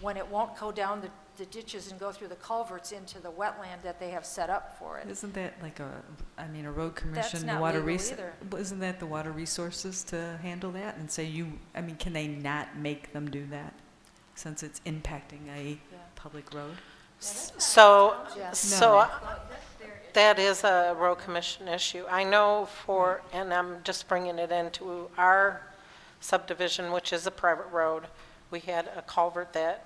when it won't go down the, the ditches and go through the culverts into the wetland that they have set up for it. Isn't that like a, I mean, a road commission, the not water legal res- either. well, Isn't that the water resources to handle that and say you, I mean, can they not make them do that? Since it's impacting a Yeah. public road? So, Yeah. so that is a road commission issue. I know for, and I'm just bringing it into our subdivision, which is a private road, we had a culvert that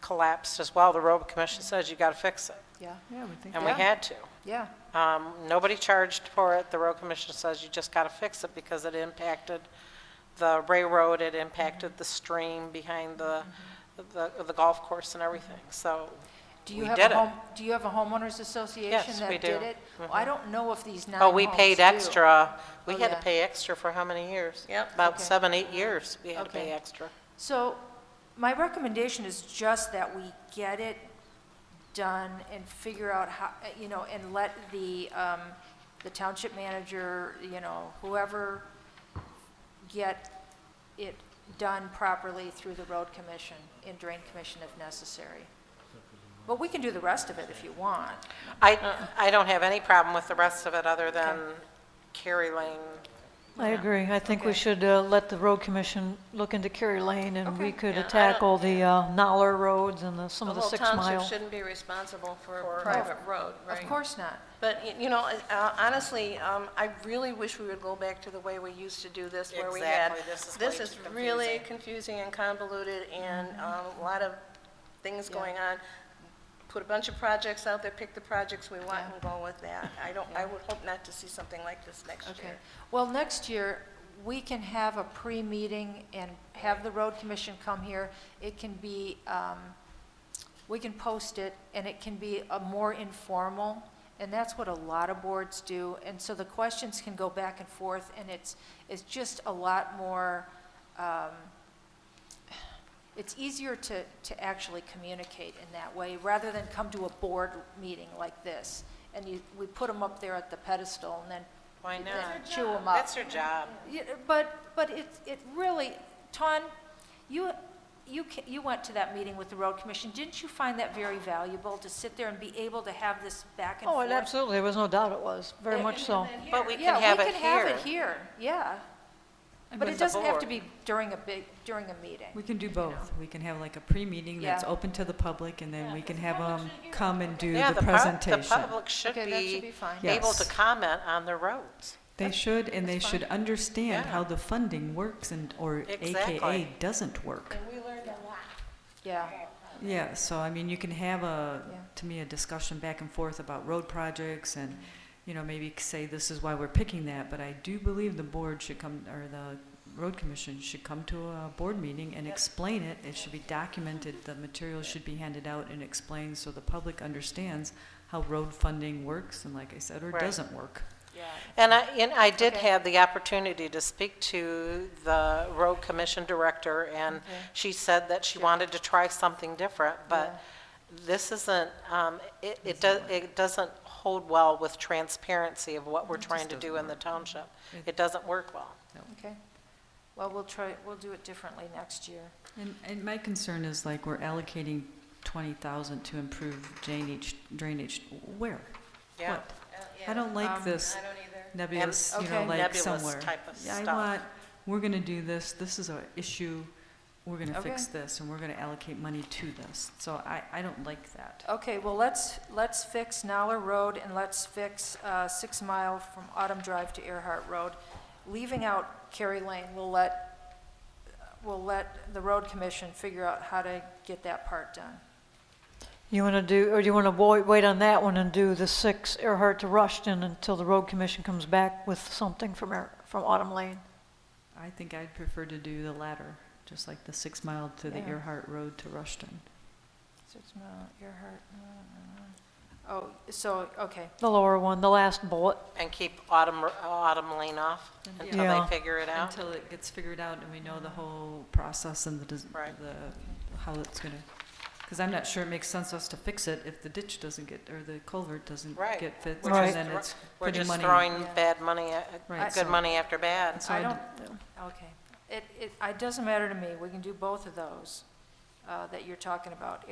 collapsed as well. The road commission says you got to fix it, Yeah, Yeah, I would think. and we Yeah. had to. yeah, Um, Nobody charged for it. The road commission says you just got to fix it because it impacted the railroad, it impacted the stream behind the, the the golf course and everything. So Do you We have a did it. home, do you have a homeowners association Yes, that we did it? do. Well, I don't know if these nine Oh, homes we paid do. extra, we Oh, had to yeah. pay extra for how many years? Yep. About Okay. seven, eight years, we had to Okay. pay extra. So my recommendation is just that we get it done and figure out how, you know, and let the, um, the township manager, you know, whoever get it done properly through the road commission and drain commission if necessary. But we can do the rest of it if you want. I, I don't have any problem with the rest of it other than Carrie Lane. I agree. I think we should uh, let the road commission look into Kerry Lane, and we Okay. could Yeah, I don't- attack all the uh, Noller roads and the- some of the Although six township mile. shouldn't be responsible for a private road, right? Of course not. But, y- you know, uh, honestly, um, I really wish we would go back to the way we used to do this, where we had... Exactly, this is way too really confusing and convoluted, and um, a lot of things going on. Put a bunch of projects out there, pick the projects we want Yeah. and go with that. I don't, I would hope not to see something like this next Okay, year. well, next year, we can have a pre-meeting and have the road commission come here. It can be, um, we can post it, and it can be a more informal, and that's what a lot of boards do. And so the questions can go back and forth, and it's, it's just a lot more, um, it's easier to, to actually communicate in that way, rather than come to a board meeting like this. And you, we put them up there at the pedestal, and then Why that not? chew them up. That's her job. Yeah, But, but it, it really, Ton, you, you, ca- you went to that meeting with the road commission. Didn't you find that very valuable to sit there and be able to have this back and Oh, forth? it absolutely, there was no doubt it was, very Yeah, much so. But we Yeah, can have it we can have it here. here, yeah. But with it the doesn't have to board. be during a big, during a meeting. We can do both. We can have like a pre-meeting that's Yeah. open to the public and then we can have them come and do Yeah, the pub- presentation. The public should Okay, that should be be fine. able to Yes. comment on the roads. They should, and they should understand Yeah. how the funding works and, or Exactly. AKA doesn't work. Yeah, Yeah, so I mean, you can have a, Yeah. to me, a discussion back and forth about road projects and, you know, maybe say this is why we're picking that, but I do believe the board should come, or the road commission should come to a board meeting and explain it. It should be documented, the materials should be handed out and explained so the public understands how road funding works and like I said, or Right. doesn't work. And I, and I did Okay. have the opportunity to speak to the road commission director, and Mm-hmm. she said that she wanted to try something different, but this isn't, um, it, it does, it doesn't hold well with transparency of what we're trying to do in the township. Mm-hmm. It doesn't work well. okay. Well, we'll try, we'll do it differently next year. And, and my concern is like we're allocating twenty thousand to improve drainage, drainage, where? Yeah. What? I don't like Um, this Oh, I don't either. nebulous, you know, Okay. like Nebulous somewhere. type of Yeah, I stuff. want, we're gonna do this, this is our issue, we're gonna fix Okay. this, and we're gonna allocate money to this. So I, I don't like that. Okay, well, let's, let's fix Noller Road and let's fix uh, Six Mile from Autumn Drive to Earhart Road. Leaving out Carrie Lane, we'll let, we'll let the road commission figure out how to get that part done. You want to do, or do you want to wait on that one and do the six Earhart to Rushton until the road commission comes back with something from, Ear- from Autumn Lane? I think I'd prefer to do the latter, just like the six mile to the Yeah. Earhart Road to Rushton. Six Mile, Earhart, uh, uh, uh. oh, so, okay, The lower one, the last bullet. And keep Autumn, Autumn Lane off until Yeah. they figure it out. Mm-hmm. Until it gets figured out and we know the whole process and the, des- Right. the, how it's gonna, because I'm not sure it makes sense us to fix it if the ditch doesn't get, or the culvert doesn't Right. get fixed, We're and just then thro- it's We're putting just money. throwing Yeah. bad money, at- Right, good so- money after bad. So I I'd- don't, okay. It, it, it doesn't matter to me, we can do both of those. Um, uh, that you're talking about.